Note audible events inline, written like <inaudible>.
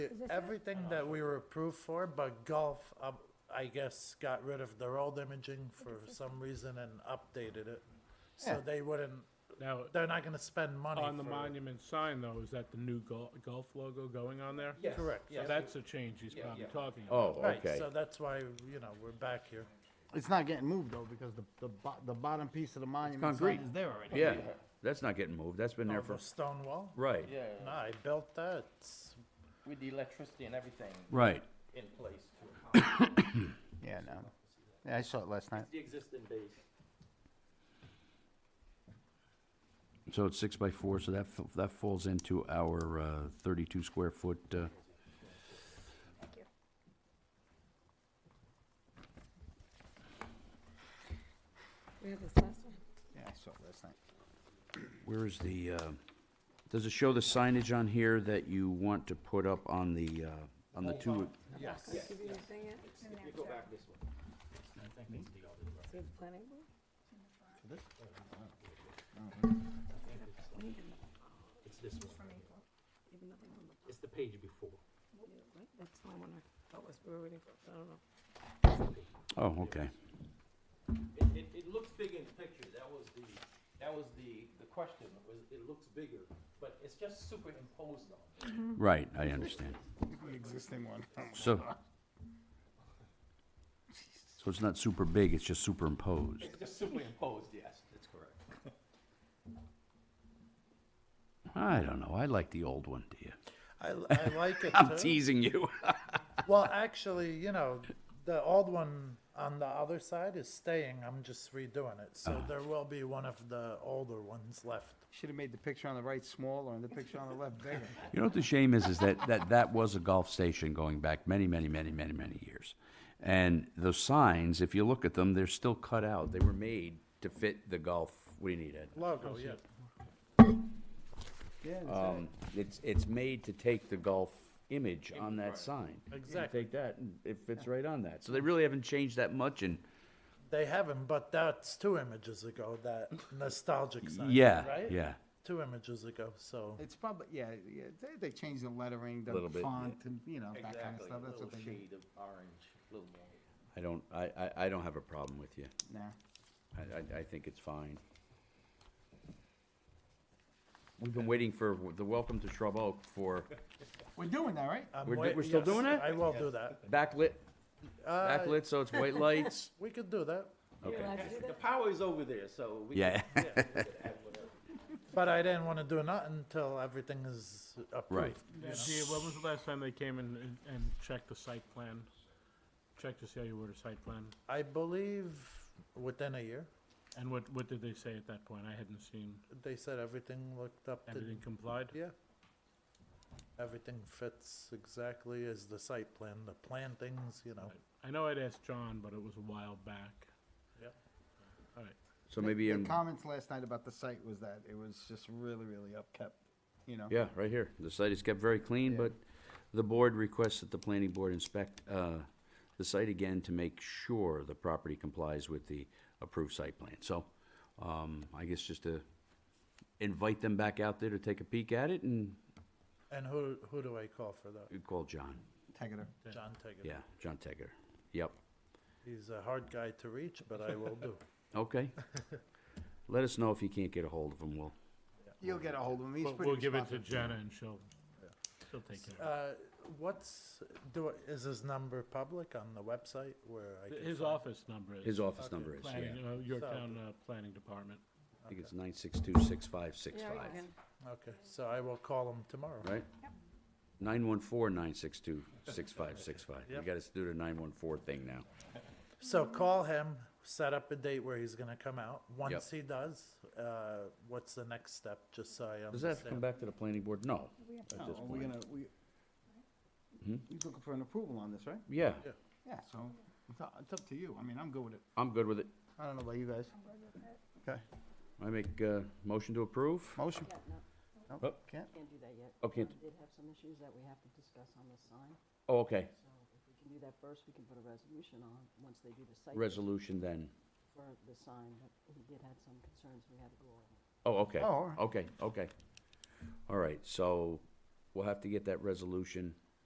Everything that we were approved for, but golf, um, I guess, got rid of their old imaging for some reason and updated it. Yeah. So they wouldn't, Now, they're not gonna spend money on the for- monument sign though, is that the new gol- golf logo going on there? Yes. Correct. So yes. that's a change he's Yeah, probably yeah. talking about. Oh, Right, okay. so that's why, you know, we're back here. It's not getting moved though, because the, the bo- the bottom piece of the monument sign concrete. is there already. Yeah, that's not getting moved, that's been there for, The stone wall? right, Yeah, No, I built that, it's with the electricity and everything right. in place to Yeah, no. Yeah, I saw it last night. The existing base. So it's six by four, so that, fa- that falls into our uh, thirty-two square foot, uh, We have this last one. Yeah, I saw it last night. where is the, uh, does it show the signage on here that you want to put up on the, uh, on the two? Yes. Did you do the thing yet? You go back this way. See the planning board? It's this one. It's the page before. What? That's the one I thought was, we were waiting for, I don't know. Oh, okay. It, it, it looks big in the picture, that was the, that was the, the question, was it looks bigger, but it's just superimposed on. Right, I understand. The existing one. <laughs> So, so it's not super big, it's just superimposed. It's just superimposed, yes, that's correct. I don't know, I like the old one, do you? I, I like it I'm too. teasing you. Well, actually, you know, the old one on the other side is staying. I'm just redoing it. So there will be one of the older ones left. Should've made the picture on the right smaller and the picture on the left <laughs> bigger. You know what the shame is, is that, that that was a golf station going back many, many, many, many, many years. And those signs, if you look at them, they're still cut out. They were made to fit the golf. What do you need, Ed? Logo, Oh, yeah. Yeah, that's it. Um, it's, it's made to take the golf image on that sign. You Exactly. Take that, and it fits right on that. So they really haven't changed that much and, They haven't, but that's two images ago, that nostalgic sign. yeah, Right? yeah. Two images ago. So It's probably, yeah, yeah, they, they changed the lettering, Little the bit, yeah. font, and, you know, that kind of Exactly, a stuff, that's little what they do. shade of orange, little more. I don't, I, I, I don't have a problem with you. Nah, I, I, I think it's fine. We've been waiting for the Welcome to Shrub Oak for we're doing that, right? I'm We're do- wait- we're still yes, doing it? I will do that. backlit, Uh, backlit, so it's white lights. We could do that. You're allowed to do The that? power is over there, so we. Yeah. can- yeah, we can add whatever. But I didn't want to do nothing until everything is approved. Right. Gee, when was the last time they came and, and- and checked the site plan? Checked to see how you were to site plan? I believe within a year, And what, what did they say at that point? I hadn't seen. they said everything looked up to Everything complied? Yeah. Everything fits exactly as the site plan, the plantings, you know. I know I'd asked John, but it was a while back. Yep. All right. So maybe The in, comments last night about the site was that it was just really, really upkept, you know? yeah, right here. The site is kept very clean, but the board requests that the planning board inspect, uh, the site again to make sure the property complies with the approved site plan. So, um, I guess just to invite them back out there to take a peek at it and And who, who do I call for that? call John. Tegater. John Tegan. Yeah, John Tegger. Yep. He's a hard guy to reach, but I will do. Okay. Let us know if you can't get a hold of him, Will. You'll get a hold of him, he's We'll, pretty we'll give it to responsive. Jenna and she'll, she'll take care of Uh, what's, do, I- is his number public on the website where I it. can? His find- office number is. His office number is, yeah. Planning, uh, Yorktown, uh, Planning Department. I think it's nine six two six five six Yeah, you five, can. Okay, so I will call him tomorrow. right? Nine one four nine six two six five six five. You Yep. gotta do the nine one four thing now. So call him, set up a date where he's gonna come out. Once he does, uh, what's the next step, just so I Does that have to come understand? back to the planning board? No. No, At this are we point. Oh, gonna, we, Hmm? you're looking for an approval on this, right? Yeah, Yeah. Yeah, so, it's up, it's up to you, I mean, I'm good with it, I'm good with it. I don't know about you guys. Okay, I make a motion to approve. motion, Yeah, no, nope, Up. can't, can't do that yet. Okay. We did have some issues that we have to discuss on the sign, Oh, okay. so if we can do that first, we can put a resolution on, once they do the site Resolution then. for the sign, but he did have some concerns we had to go over. Oh, okay. Oh, all right. Okay, okay. All right, so we'll have to get that resolution